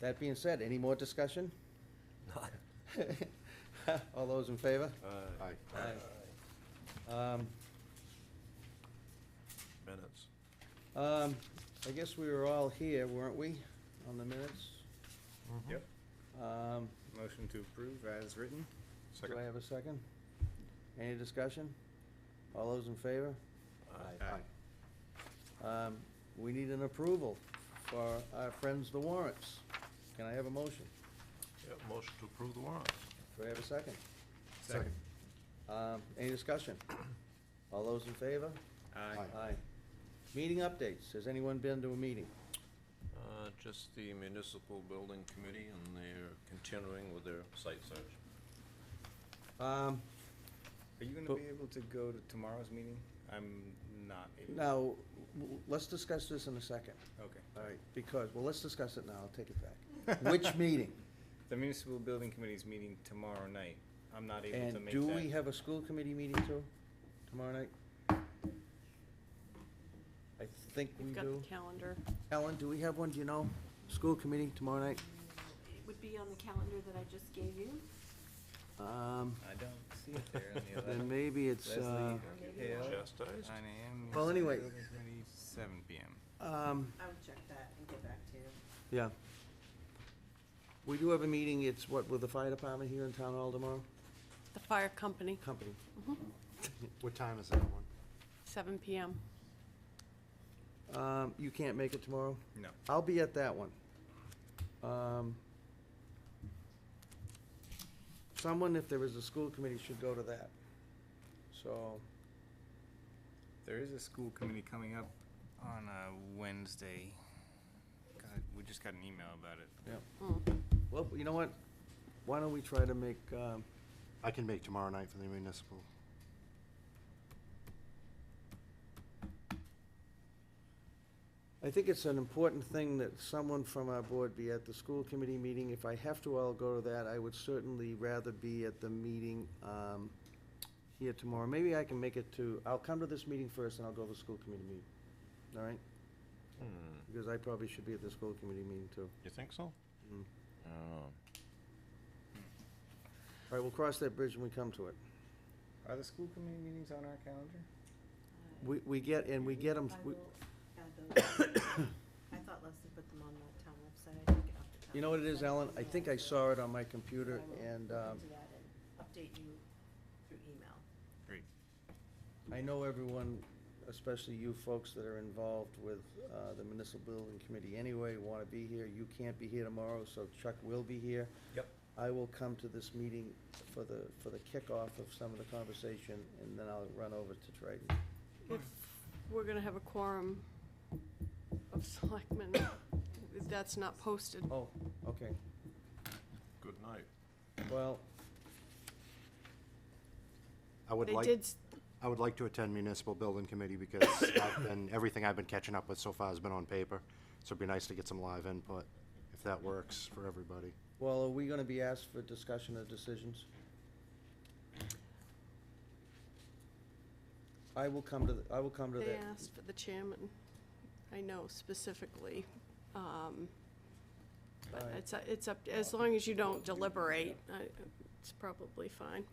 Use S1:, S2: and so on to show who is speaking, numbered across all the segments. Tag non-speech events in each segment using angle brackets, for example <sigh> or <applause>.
S1: That being said, any more discussion? <laughs> All those in favor?
S2: Aye.
S1: Um,
S2: Minutes.
S1: um, I guess we were all here, weren't we, on the minutes? Mm-hmm.
S3: Yep.
S1: Um,
S3: Motion to approve as written?
S1: Do I
S2: Second.
S1: have a second? Any discussion? All those in favor? Um, We need an approval for our friends the warrants. Can I have a motion?
S2: Yeah, motion to approve the warrants.
S1: Do I have a second?
S3: Second.
S1: Um, Any discussion? All those in favor?
S3: Aye.
S1: Aye. Meeting updates. Has anyone been to a meeting?
S2: Uh, Just the municipal building committee, and they're continuing with their site search.
S1: Um,
S3: Are you
S1: But-
S3: gonna be able to go to tomorrow's meeting? I'm not able.
S1: Now, w- w- let's discuss this in a second,
S3: Okay.
S1: all right? Because, well, let's discuss it now. I'll take it
S3: <laughs>
S1: back. <laughs> Which meeting?
S3: The municipal building committee's meeting tomorrow night. I'm not able to
S1: And
S3: make
S1: do
S3: that.
S1: we have a school committee meeting too, tomorrow night? I think we
S4: We've got the
S1: do.
S4: calendar.
S1: Ellen, do we have one, do you know? School committee tomorrow night?
S4: It would be on the calendar that I just gave you.
S1: Um,
S3: I don't see it there on the
S1: <laughs> Then
S3: eleventh.
S1: maybe it's, uh,
S3: Leslie Hill,
S2: Chastised?
S3: nine AM.
S1: Well, anyway.
S3: municipal building committee, Seven PM.
S1: um,
S4: I would check that and get back to you.
S5: Uh,
S1: yeah. We do have a meeting, it's what, with the fire department here in town hall tomorrow?
S4: The fire company,
S1: Company.
S6: What time is that one?
S4: seven PM.
S1: Um, you can't make it tomorrow?
S3: No.
S1: I'll be at that one. Um, Someone, if there is a school committee, should go to that. So,
S3: There is a school committee coming up on uh Wednesday. God, we just got an email about it.
S4: Hmm.
S1: well, you know what? Why don't we try to make, um,
S6: I can make tomorrow night for the municipal.
S1: I think it's an important thing that someone from our board be at the school committee meeting. If I have to, I'll go to that. I would certainly rather be at the meeting um, here tomorrow. Maybe I can make it to, I'll come to this meeting first and I'll go to the school committee meeting. All right?
S2: Hmm,
S1: Because I probably should be at the school committee meeting too.
S2: You think so?
S1: Mm.
S2: Oh.
S1: All right, we'll cross that bridge when we come to it.
S3: Are the school committee meetings on our calendar?
S1: We, we get, and we get them,
S5: I will add
S1: <coughs>
S5: those. I thought Leslie put them on the town website. I didn't get off the town
S1: you know what it is,
S5: website.
S1: Alan? I think I saw it on my computer
S5: I will
S1: and
S5: look
S1: um,
S5: into that and Update you through email.
S3: Great.
S1: I know everyone, especially you folks that are involved with uh, the municipal building committee anyway, want to be here. You can't be here tomorrow, so Chuck will be here.
S2: Yep.
S1: I will come to this meeting for the, for the kickoff of some of the conversation and then I'll run over to Triton.
S4: If we're gonna have a quorum of selectmen, if that's not posted.
S1: Oh, okay.
S2: Good night.
S1: Well,
S6: I would
S4: They
S6: like,
S4: did, s-
S6: I would like to attend municipal building
S4: <coughs>
S6: committee because I've been, everything I've been catching up with so far has been on paper. So it'd be nice to get some live input, if that works for everybody.
S1: well, are we going to be asked for discussion of decisions? I will come to, the- I will come to that.
S4: they asked for the chairman, I know specifically. um, But
S1: Right.
S4: it's, it's up, as long as you don't deliberate, I- it's probably fine.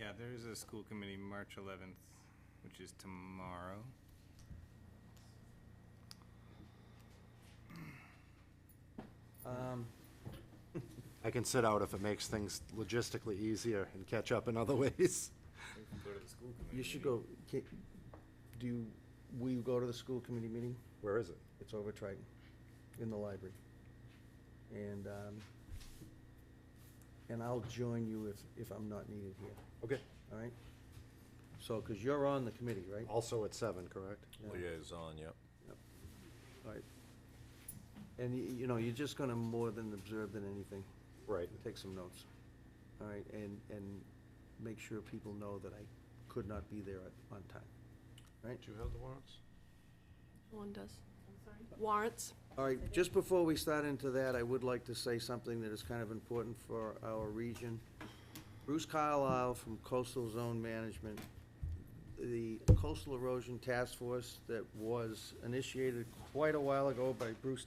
S3: Yeah, there is a school committee March eleventh, which is tomorrow.
S1: Um,
S6: I can sit out if it makes things logistically easier and catch up in other <laughs> ways.
S3: We can go to the school committee.
S1: You should go, ca- do, you- will you go to the school committee meeting?
S6: Where is it?
S1: It's over at Triton, in the library. And, um, and I'll join you if, if I'm not needed here,
S6: Okay,
S1: all right? So, because you're on the committee, right?
S6: also at seven, correct?
S1: Yeah.
S2: Liaison, yep.
S1: All right. And you, you know, you're just gonna more than observe than anything.
S6: Right.
S1: Take some notes, all right? And, and make sure people know that I could not be there at, on time, all right?
S2: Do you have the warrants?
S4: One does.
S5: I'm sorry?
S4: Warrants,
S1: All right, just before we start into that, I would like to say something that is kind of important for our region. Bruce Carlisle from Coastal Zone Management, the Coastal Erosion Task Force that was initiated quite a while ago by Bruce